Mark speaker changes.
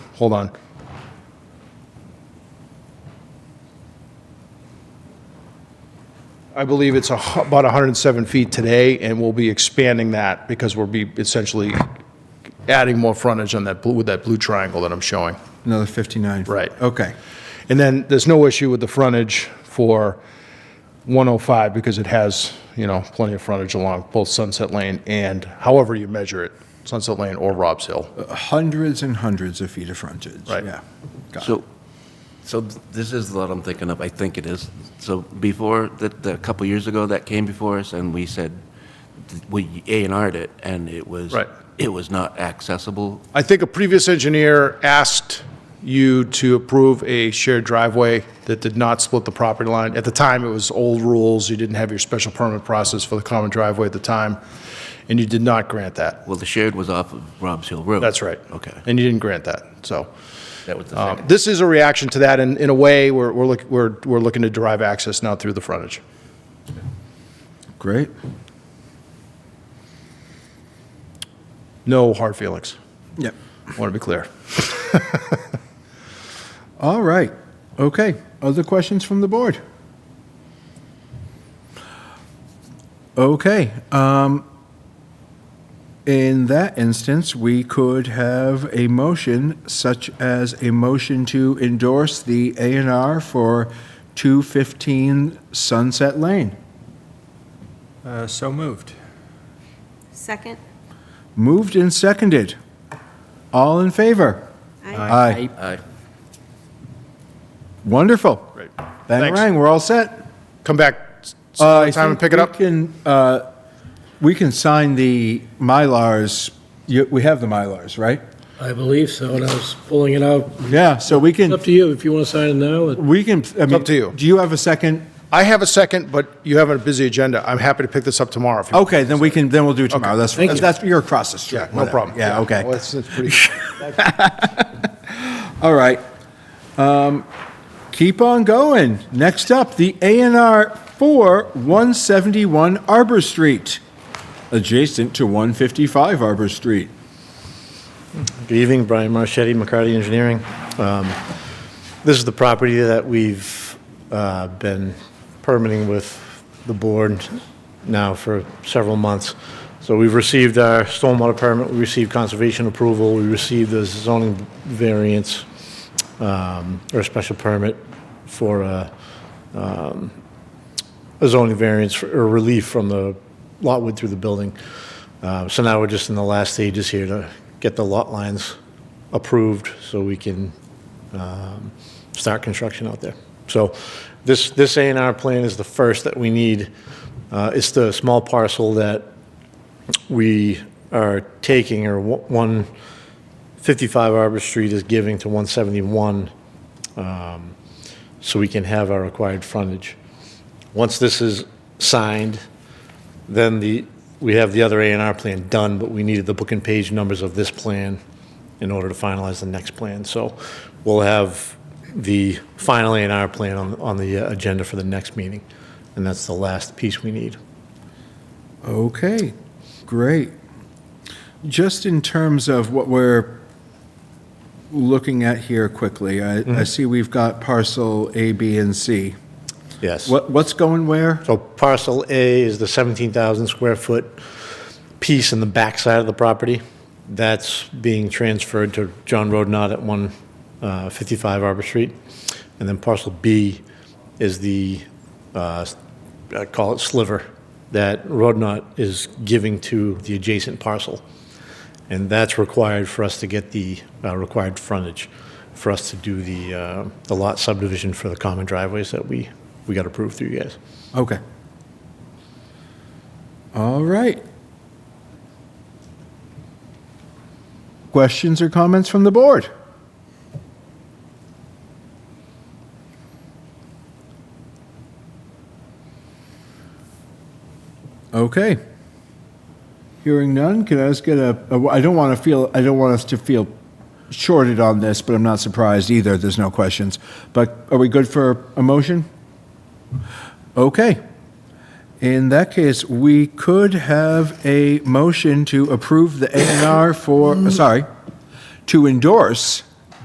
Speaker 1: Hold on. I believe it's a hu- about 107 feet today, and we'll be expanding that because we'll be essentially adding more frontage on that, blue with that blue triangle that I'm showing.
Speaker 2: Another 59?
Speaker 1: Right.
Speaker 2: Okay.
Speaker 1: And then there's no issue with the frontage for 105 because it has, you know, plenty of frontage along both Sunset Lane and however you measure it, Sunset Lane or Robb's Hill.
Speaker 2: Hundreds and hundreds of feet of frontage.
Speaker 1: Right.
Speaker 2: Yeah. Got it.
Speaker 3: So, so th- this is what I'm thinking of, I think it is. So before, that, the- a couple years ago, that came before us, and we said, th- we A and R'd it, and it was.
Speaker 1: Right.
Speaker 3: It was not accessible.
Speaker 1: I think a previous engineer asked you to approve a shared driveway that did not split the property line. At the time, it was old rules, you didn't have your special permit process for the common driveway at the time, and you did not grant that.
Speaker 3: Well, the shared was off of Robb's Hill Road.
Speaker 1: That's right.
Speaker 3: Okay,
Speaker 1: And you didn't grant that, so.
Speaker 3: that was the
Speaker 1: um,
Speaker 3: second.
Speaker 1: This is a reaction to that, and in a way, we're, we're look- we're, we're looking to derive access now through the frontage.
Speaker 2: Great.
Speaker 1: No hard feelings,
Speaker 2: Yep.
Speaker 1: want to be clear.
Speaker 2: All right. Okay. Other questions from the board? Okay. um, In that instance, we could have a motion such as a motion to endorse the A and R for 215 Sunset Lane.
Speaker 4: Uh, So moved.
Speaker 5: Second?
Speaker 2: Moved and seconded. All in favor? Aye.
Speaker 3: Aye.
Speaker 2: Wonderful.
Speaker 1: Great.
Speaker 2: Bang,
Speaker 1: Thanks.
Speaker 2: rang, we're all set.
Speaker 1: Come back s-
Speaker 2: Uh, I
Speaker 1: sometime and
Speaker 2: think
Speaker 1: pick it
Speaker 2: we
Speaker 1: up.
Speaker 2: can, uh, We can sign the Mylars, You- we have the Mylars, right?
Speaker 6: I believe so, and I was pulling it out.
Speaker 2: Yeah, so we
Speaker 6: It's
Speaker 2: can,
Speaker 6: up to you if you want to sign it now. It-
Speaker 2: we can. It's
Speaker 1: up to you.
Speaker 2: Do you have a second?
Speaker 1: I have a second, but you have a busy agenda. I'm happy to pick this up tomorrow if you.
Speaker 2: Okay, then we can, then we'll do it tomorrow. That's,
Speaker 6: Thank you.
Speaker 2: that's, you're across the street.
Speaker 1: Yeah, no
Speaker 2: whatever.
Speaker 1: problem.
Speaker 2: Yeah, okay.
Speaker 1: Well, it's- it's pretty-
Speaker 2: All right. Um, Keep on going. Next up, the A and R for 171 Arbor Street, adjacent to 155 Arbor Street.
Speaker 7: Good evening, Brian Marchetti, McCarty Engineering. Um, This is the property that we've uh, been permitting with the board now for several months. So we've received our stormwater permit, we received conservation approval, we received the zoning variance um, or special permit for uh, a zoning variance for- or relief from the lot width through the building. Uh, So now we're just in the last stages here to get the lot lines approved so we can um, start construction out there. So this, this A and R plan is the first that we need. Uh, It's the small parcel that we are taking, or one- 155 Arbor Street is giving to 171, um, so we can have our required frontage. Once this is signed, then the, we have the other A and R plan done, but we needed the book and page numbers of this plan in order to finalize the next plan. So we'll have the final A and R plan on, on the uh, agenda for the next meeting, and that's the last piece we need.
Speaker 2: Okay, great. Just in terms of what we're looking at here quickly, I, I see we've got parcel A, B, and C.
Speaker 7: Yes.
Speaker 2: What, what's going where?
Speaker 7: So parcel A is the 17,000 square foot piece in the backside of the property. That's being transferred to John Rodnott at 155 Arbor Street. And then parcel B is the, uh, I call it sliver, that Rodnott is giving to the adjacent parcel. And that's required for us to get the uh, required frontage, for us to do the uh, the lot subdivision for the common driveways that we, we got approved through you guys.
Speaker 2: Okay. All right. Questions or comments from the board? Okay. Hearing none, can I just get a, a- I don't want to feel, I don't want us to feel shorted on this, but I'm not surprised either, there's no questions. But are we good for a motion? Okay. In that case, we could have a motion to approve the A and R for, sorry, to endorse